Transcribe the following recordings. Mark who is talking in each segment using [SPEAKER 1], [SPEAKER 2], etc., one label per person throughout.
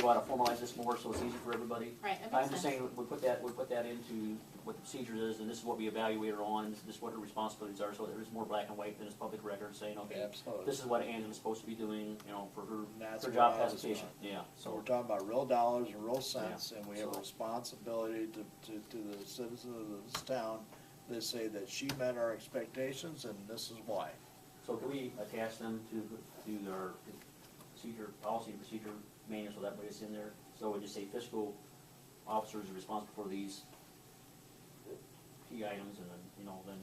[SPEAKER 1] you wanna formalize this more so it's easy for everybody?
[SPEAKER 2] Right, that
[SPEAKER 1] I'm
[SPEAKER 2] makes
[SPEAKER 1] just
[SPEAKER 2] sense.
[SPEAKER 1] saying, we put that, we put that into what the procedure is, and this is what we evaluate her on, and this is what her responsibilities are, so there is more black and white than is public record saying, okay,
[SPEAKER 3] Absolutely.
[SPEAKER 1] this is what Angela's supposed to be doing, you know, for her,
[SPEAKER 3] That's
[SPEAKER 1] her
[SPEAKER 3] what
[SPEAKER 1] job
[SPEAKER 3] I was
[SPEAKER 1] classification, yeah,
[SPEAKER 3] So we're
[SPEAKER 1] so,
[SPEAKER 3] talking about real dollars and real cents, and we have a
[SPEAKER 1] so-
[SPEAKER 3] responsibility to, to, to the citizens of this town that say that she met our expectations and this is why.
[SPEAKER 1] so can we attach them to, to our procedure, policy and procedure manual, so that way it's in there? So we just say fiscal officers are responsible for these key items, and then, you know, then,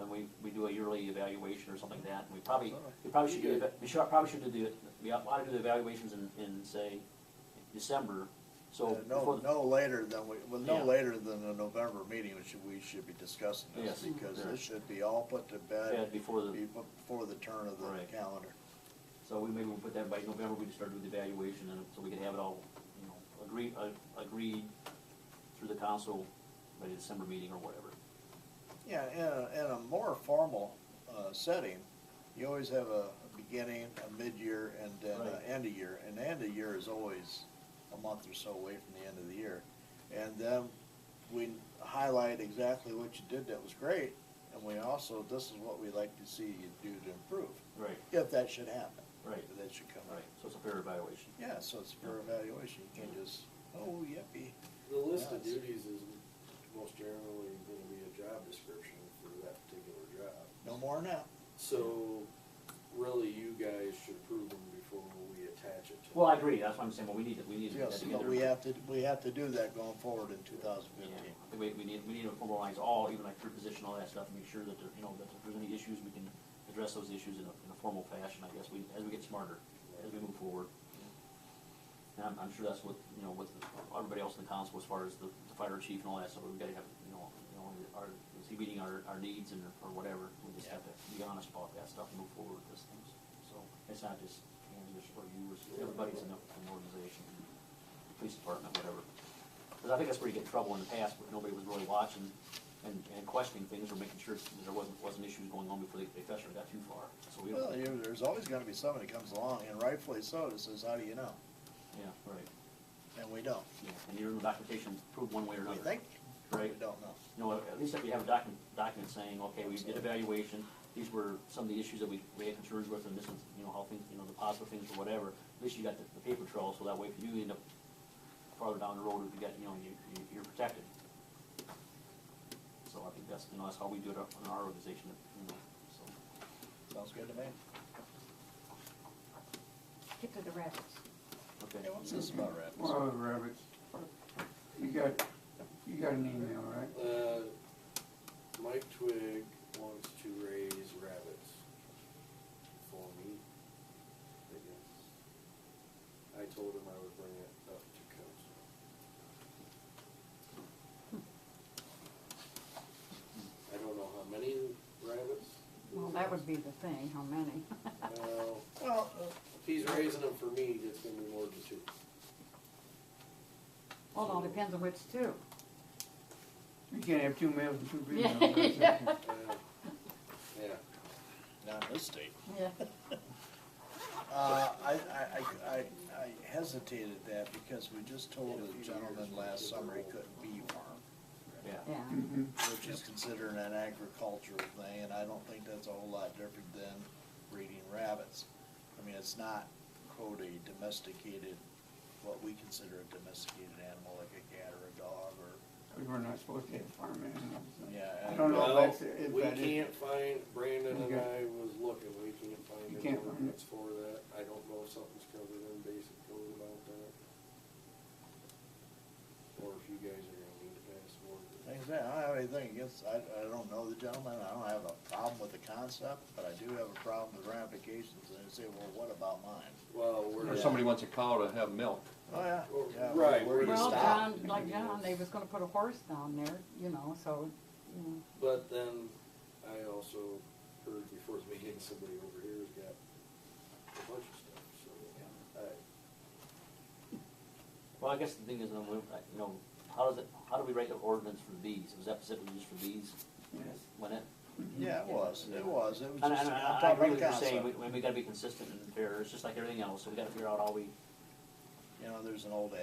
[SPEAKER 1] then we, we do a yearly evaluation or something like that, and we probably, We probably should, do the- we should, probably should do the, we ought to do the evaluations in, in, say, December, so.
[SPEAKER 3] Uh, No,
[SPEAKER 1] before-
[SPEAKER 3] no later than we, well,
[SPEAKER 1] Yeah.
[SPEAKER 3] no later than the November meeting, we should, we should be discussing
[SPEAKER 1] Yes.
[SPEAKER 3] this, because
[SPEAKER 1] Yeah.
[SPEAKER 3] this should be all put to
[SPEAKER 1] Yeah,
[SPEAKER 3] bed
[SPEAKER 1] before the,
[SPEAKER 3] befo- before the turn of the
[SPEAKER 1] Right.
[SPEAKER 3] calendar.
[SPEAKER 1] so we maybe we'll put that by November, we just start doing the evaluation, and so we can have it all, you know, agree, uh, agreed through the council by the December meeting or whatever.
[SPEAKER 3] Yeah, in a, in a more formal, uh, setting, you always have a beginning, a mid-year, and then
[SPEAKER 1] Right.
[SPEAKER 3] an end of year. And the end of year is always a month or so away from the end of the year. And then we highlight exactly what you did that was great, and we also, this is what we'd like to see you do to improve,
[SPEAKER 1] Right,
[SPEAKER 3] if that should happen.
[SPEAKER 1] Right.
[SPEAKER 3] If that should come
[SPEAKER 1] right,
[SPEAKER 3] up.
[SPEAKER 1] so it's a fair evaluation.
[SPEAKER 3] Yeah, so it's for evaluation, you can't just, oh, yippee.
[SPEAKER 4] The list of
[SPEAKER 3] Yes.
[SPEAKER 4] duties is most generally gonna be a job description for that particular job.
[SPEAKER 3] No more now.
[SPEAKER 4] So, really, you guys should approve them before we attach it to.
[SPEAKER 1] Well, I agree, that's what I'm saying, but we need to, we need to get
[SPEAKER 3] Yes,
[SPEAKER 1] that
[SPEAKER 3] but
[SPEAKER 1] together.
[SPEAKER 3] we have to, we have to do that going forward in two thousand
[SPEAKER 1] Yeah,
[SPEAKER 3] fifteen.
[SPEAKER 1] I think we, we need, we need to formalize all, even like your position, all that stuff, and make sure that, there- you know, that if there's any issues, we can address those issues in a, in a formal fashion, I guess, we, as we get smarter, as we move forward. And I'm, I'm sure that's what, you know, with everybody else in the council, as far as the, the fire chief and all that stuff, we gotta have, you know, you know, are, is he meeting our, our needs and, or whatever? We just have to be honest about that stuff and move forward with those things, so, it's not just, you know, just for you, it's everybody's in the, in the organization, police department, whatever. Because I think that's where you get in trouble in the past, but nobody was really watching and, and questioning things or making sure that there wasn't, wasn't issues going on before they, they actually got too far. So we
[SPEAKER 3] Well,
[SPEAKER 1] don't,
[SPEAKER 3] you, there's always gonna be somebody that comes along, and rightfully so, that says, how do you know?
[SPEAKER 1] yeah, right.
[SPEAKER 3] And we don't.
[SPEAKER 1] Yeah, and you're in the documentation, prove one way or
[SPEAKER 3] We
[SPEAKER 1] another.
[SPEAKER 3] think, we
[SPEAKER 1] Right.
[SPEAKER 3] don't know.
[SPEAKER 1] You know, at least if you have a document, document saying, okay, we did evaluation, these were some of the issues that we, we had concerns with, and this is, you know, how things, you know, the positive things or whatever. At least you got the, the paper trail, so that way if you end up farther down the road, if you got, you know, you, you- you're protected. So I think that's, you know, that's how we do it up in our organization, you know, so.
[SPEAKER 3] Sounds good to me.
[SPEAKER 5] Get to the rabbits.
[SPEAKER 1] Okay.
[SPEAKER 3] Hey, what's this about rabbits?
[SPEAKER 6] Well, rabbits, you got, you got an email, right?
[SPEAKER 4] Uh, Mike Twig wants to raise rabbits for me, I guess. I told him I would bring it up to council. I don't know how many rabbits.
[SPEAKER 5] Well, that would be the thing, how many?
[SPEAKER 4] Well,
[SPEAKER 3] Well,
[SPEAKER 4] if he's raising them for me, it's gonna be more than two.
[SPEAKER 5] Well, it all depends on which two.
[SPEAKER 6] You can't have two males and two females.
[SPEAKER 5] Yeah.
[SPEAKER 6] right?
[SPEAKER 4] Uh, Yeah.
[SPEAKER 3] not in this state.
[SPEAKER 5] Yeah.
[SPEAKER 3] Uh, I, I, I, I I hesitated that because we just told a gentleman last summer he couldn't be one,
[SPEAKER 1] Yeah,
[SPEAKER 5] Yeah,
[SPEAKER 6] Mhm.
[SPEAKER 3] which is considered an agricultural thing, and I don't think that's a whole lot different than breeding rabbits. I mean, it's not quote a domesticated, what we consider a domesticated animal, like a cat or a dog or
[SPEAKER 6] Because we're not supposed to have farm animals.
[SPEAKER 3] Yeah,
[SPEAKER 6] I
[SPEAKER 3] and-
[SPEAKER 6] don't know
[SPEAKER 4] Well,
[SPEAKER 6] if that's, if
[SPEAKER 4] we
[SPEAKER 6] that is,
[SPEAKER 4] can't find, Brandon and I
[SPEAKER 6] Okay.
[SPEAKER 4] was looking, we can't
[SPEAKER 6] You
[SPEAKER 4] find any
[SPEAKER 6] can't find it.
[SPEAKER 4] ordinance for that. I don't know if something's covered in basic code about that. Or if you guys are gonna need to pass more.
[SPEAKER 3] Like I said, I don't have anything against, I, I don't know the gentleman, I don't have a problem with the concept, but I do have a problem with ramifications, and they say, well, what about mine?
[SPEAKER 4] Well,
[SPEAKER 7] Or
[SPEAKER 4] we're.
[SPEAKER 7] somebody wants a cow to have milk.
[SPEAKER 3] Oh, yeah.
[SPEAKER 4] Well,
[SPEAKER 3] yeah,
[SPEAKER 4] right,
[SPEAKER 3] Where do you
[SPEAKER 4] we're-
[SPEAKER 5] well,
[SPEAKER 3] stop?
[SPEAKER 5] John, like John, they was gonna put a horse down there, you know, so, you know,
[SPEAKER 4] But then, I also heard before the meeting, somebody over here has got a bunch of stuff, so. I-
[SPEAKER 1] well, I guess the thing is, um, we- uh, you know, how does it, how do we write the ordinance for these? Was that specifically just for these,
[SPEAKER 6] yes.
[SPEAKER 1] when it?
[SPEAKER 3] Yeah, it was, it was, it was
[SPEAKER 1] And,
[SPEAKER 3] just,
[SPEAKER 1] and
[SPEAKER 3] I'm
[SPEAKER 1] I I
[SPEAKER 3] talking
[SPEAKER 1] agree
[SPEAKER 3] about
[SPEAKER 1] with
[SPEAKER 3] the
[SPEAKER 1] you saying,
[SPEAKER 3] concept.
[SPEAKER 1] we, we gotta be consistent and fair, it's just like everything else, so we gotta figure out how we,
[SPEAKER 3] You know, there's an old